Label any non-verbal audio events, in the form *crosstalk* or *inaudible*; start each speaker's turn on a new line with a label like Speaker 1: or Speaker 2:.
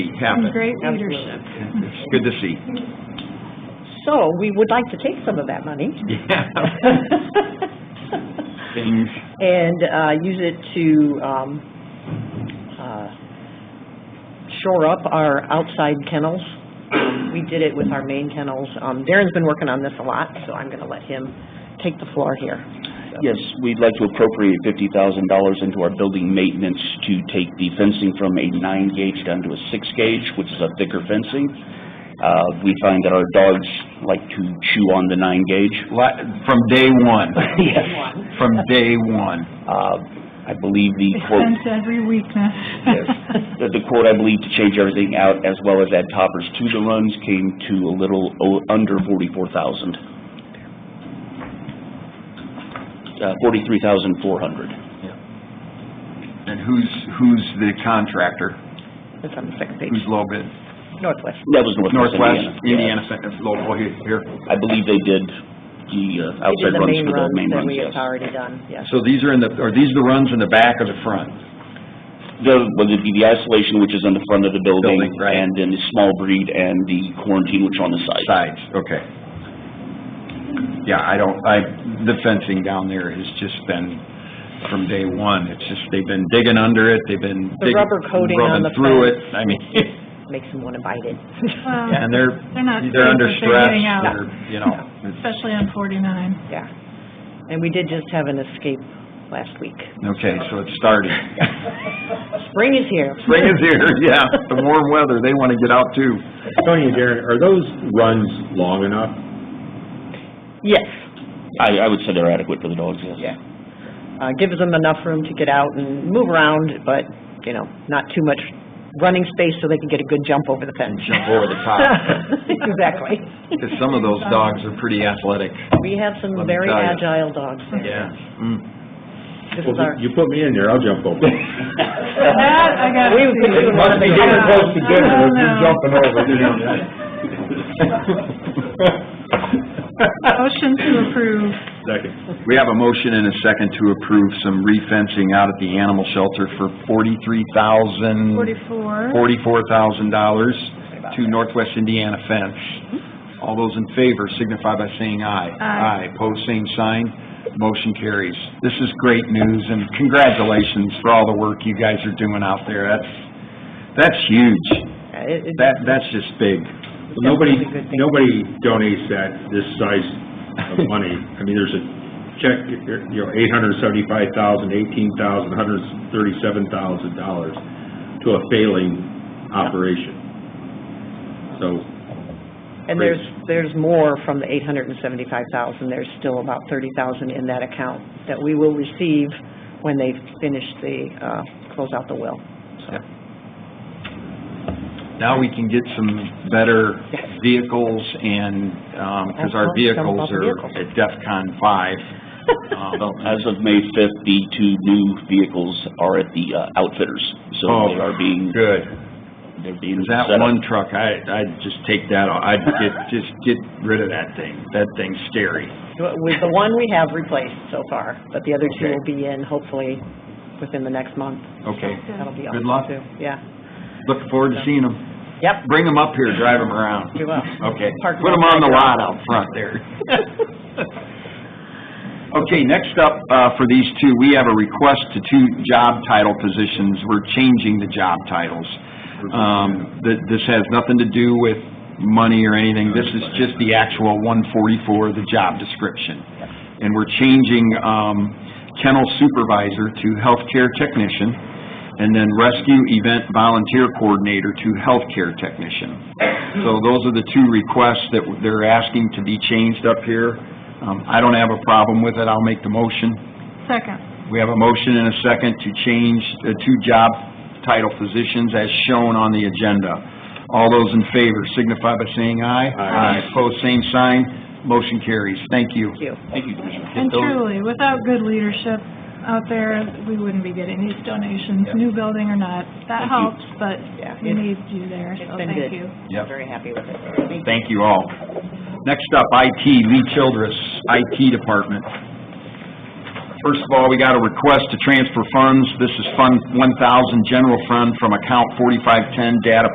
Speaker 1: happen.
Speaker 2: Some great leadership.
Speaker 1: Good to see.
Speaker 3: So, we would like to take some of that money. *laughs*
Speaker 1: Yeah. Change.
Speaker 3: And, uh, use it to, um, uh, shore up our outside kennels. Um, We did it with our main kennels. Um, Darren's been working on this a lot, so I'm gonna let him take the floor here.
Speaker 4: Yes, we'd like to appropriate fifty thousand dollars into our building maintenance to take the fencing from a nine gauge down to a six gauge, which is a thicker fencing. Uh, we find that our dogs like to chew on the nine
Speaker 3: *laughs*
Speaker 4: gauge.
Speaker 1: Li- From day one.
Speaker 4: Yes.
Speaker 1: From day one.
Speaker 4: Uh, I believe the quote,
Speaker 2: Expense every weakness.
Speaker 4: yes,
Speaker 2: *laughs*
Speaker 4: the the quote, I believe, to change everything out as well as add toppers to the runs came to a little o- under forty-four thousand. Uh, forty-three thousand four hundred.
Speaker 1: And who's, who's the contractor?
Speaker 3: It's on the second
Speaker 1: Who's
Speaker 3: page,
Speaker 1: low bid?
Speaker 4: Hmm.
Speaker 3: Northwest.
Speaker 4: That was Northwest
Speaker 1: Northwest, Indiana,
Speaker 4: Indiana. Yeah.
Speaker 1: Center, local here- here.
Speaker 4: I believe they did
Speaker 3: We
Speaker 4: the uh,
Speaker 3: did the
Speaker 4: outside runs
Speaker 3: main
Speaker 4: for the
Speaker 3: runs
Speaker 4: main
Speaker 3: that
Speaker 4: runs,
Speaker 3: we
Speaker 4: yes.
Speaker 3: have already done, yes.
Speaker 1: So these are in the, are these the runs in the back or the front?
Speaker 4: The, whether it be the isolation, which is on the front of the building.
Speaker 1: Building, right.
Speaker 4: And then the small breed and the quarantine, which are on the side.
Speaker 1: Sides, okay. Yeah, I don't, I, the fencing down there has just been from day one. It's just, they've been digging under it, they've been
Speaker 3: The
Speaker 1: digging,
Speaker 3: rubber coating on
Speaker 1: rubbing
Speaker 3: the
Speaker 1: through it.
Speaker 3: fence.
Speaker 1: I mean, *laughs*
Speaker 3: Makes them wanna bite it. *laughs*
Speaker 2: Well,
Speaker 1: and they're,
Speaker 2: They're not
Speaker 1: they're
Speaker 2: safe
Speaker 1: under
Speaker 2: if they're
Speaker 1: stress,
Speaker 2: getting out.
Speaker 1: they're, you
Speaker 2: *laughs*
Speaker 1: know, it's-
Speaker 2: Especially on forty-nine.
Speaker 3: Yeah. And we did just have an escape last week.
Speaker 1: okay, so it's starting.
Speaker 3: Spring is here.
Speaker 1: Spring is here, *laughs* yeah, the warm weather, they want to get out too.
Speaker 5: Tony and Darren, are those runs long enough?
Speaker 3: Yes.
Speaker 4: I, I would say they're adequate for the dogs, yes.
Speaker 3: Yeah. Uh, gives them enough room to get out and move around, but, you know, not too much running space so they can get a good jump over the fence.
Speaker 1: Jump over the top.
Speaker 3: *laughs* Exactly.
Speaker 1: Because some of those dogs are pretty athletic.
Speaker 3: We have some
Speaker 1: Let me
Speaker 3: very
Speaker 1: tell you.
Speaker 3: agile dogs there.
Speaker 1: Mm.
Speaker 3: This is our,
Speaker 5: You put me in there, I'll jump *laughs* over.
Speaker 2: That, I gotta
Speaker 3: We-
Speaker 2: see.
Speaker 3: we must be
Speaker 5: getting close to dinner,
Speaker 2: Oh,
Speaker 5: if you're
Speaker 2: no.
Speaker 5: jumping over, you know.
Speaker 2: Motion to approve.
Speaker 5: Second.
Speaker 1: We have a motion and a second to approve some refencing out at the animal shelter for forty-three thousand,
Speaker 2: Forty-four.
Speaker 1: forty-four thousand dollars to Northwest Indiana Fence. All those in favor signify by saying aye. Aye,
Speaker 2: Aye.
Speaker 1: pose same sign, motion carries. This is great news and congratulations for all the work you guys are doing out there. That's, that's huge.
Speaker 3: Uh, it- it-
Speaker 1: That, that's just big.
Speaker 5: Well, Nobody,
Speaker 3: That's a good thing.
Speaker 5: nobody donates that, this size of money. I mean, there's a check, you know, eight hundred seventy-five thousand, eighteen thousand, hundred thirty-seven thousand dollars to a failing operation. So,
Speaker 3: and there's, there's more from the eight hundred and seventy-five thousand, there's still about thirty thousand in that account that we will receive when they finish the, uh, close out the will.
Speaker 1: Now we can get some better vehicles and, um 'cause because our
Speaker 3: Excellent.
Speaker 1: vehicles
Speaker 3: Jump
Speaker 1: are
Speaker 3: off the
Speaker 1: at DEFCON five. Um,
Speaker 4: Well, as of May fifth, the two new vehicles are at the uh, outfitters, so
Speaker 1: Oh,
Speaker 4: they are being,
Speaker 1: Good.
Speaker 4: they're being
Speaker 1: 'Cause
Speaker 4: set up.
Speaker 1: that one truck, I, I'd just take that, off. I'd
Speaker 4: *laughs*
Speaker 1: get, just get rid of that thing. That thing's scary.
Speaker 3: With the one we have replaced so far, but the other two
Speaker 1: Okay.
Speaker 3: will be in hopefully within the next month.
Speaker 1: Okay.
Speaker 3: That'll be
Speaker 1: Good
Speaker 3: awesome
Speaker 1: luck.
Speaker 3: too. Yeah.
Speaker 1: Looking forward to seeing them.
Speaker 3: Yep,
Speaker 1: Bring them up here, drive them around.
Speaker 3: we will.
Speaker 1: Okay.
Speaker 3: Park
Speaker 1: Put them on
Speaker 3: outside
Speaker 1: the
Speaker 3: your
Speaker 1: lot
Speaker 3: house.
Speaker 1: out front there. Okay, next up, uh, for these two, we have a request to two job title positions. We're changing the job titles. Um, th- this has nothing to do with money or anything. This is just the actual one forty-four, the job description. And we're changing, um, kennel supervisor to healthcare technician, and then rescue event volunteer coordinator to healthcare technician. So those are the two requests that they're asking to be changed up here. Um, I don't have a problem with it, I'll make the motion.
Speaker 2: Second.
Speaker 1: We have a motion and a second to change the two job title positions as shown on the agenda. All those in favor signify by saying aye.
Speaker 5: Aye.
Speaker 1: Opposed, same sign, motion carries. Thank you.
Speaker 3: Thank you.
Speaker 4: Thank you, Commissioner.
Speaker 2: And
Speaker 1: those-
Speaker 2: truly, without good leadership out there, we wouldn't be getting these donations, new building or not.
Speaker 4: Thank
Speaker 2: That
Speaker 4: you.
Speaker 2: helps, but
Speaker 3: Yeah,
Speaker 2: we
Speaker 3: it's-
Speaker 2: need you there,
Speaker 3: It's
Speaker 2: so
Speaker 3: been
Speaker 2: thank
Speaker 3: good.
Speaker 2: you.
Speaker 1: Yep.
Speaker 3: Very happy with it. Thank you.
Speaker 1: Thank you all. Next up, IT, Lee Childress, IT Department. First of all, we got a request to transfer funds. This is Fund 1,000 General Fund from account 4510 Data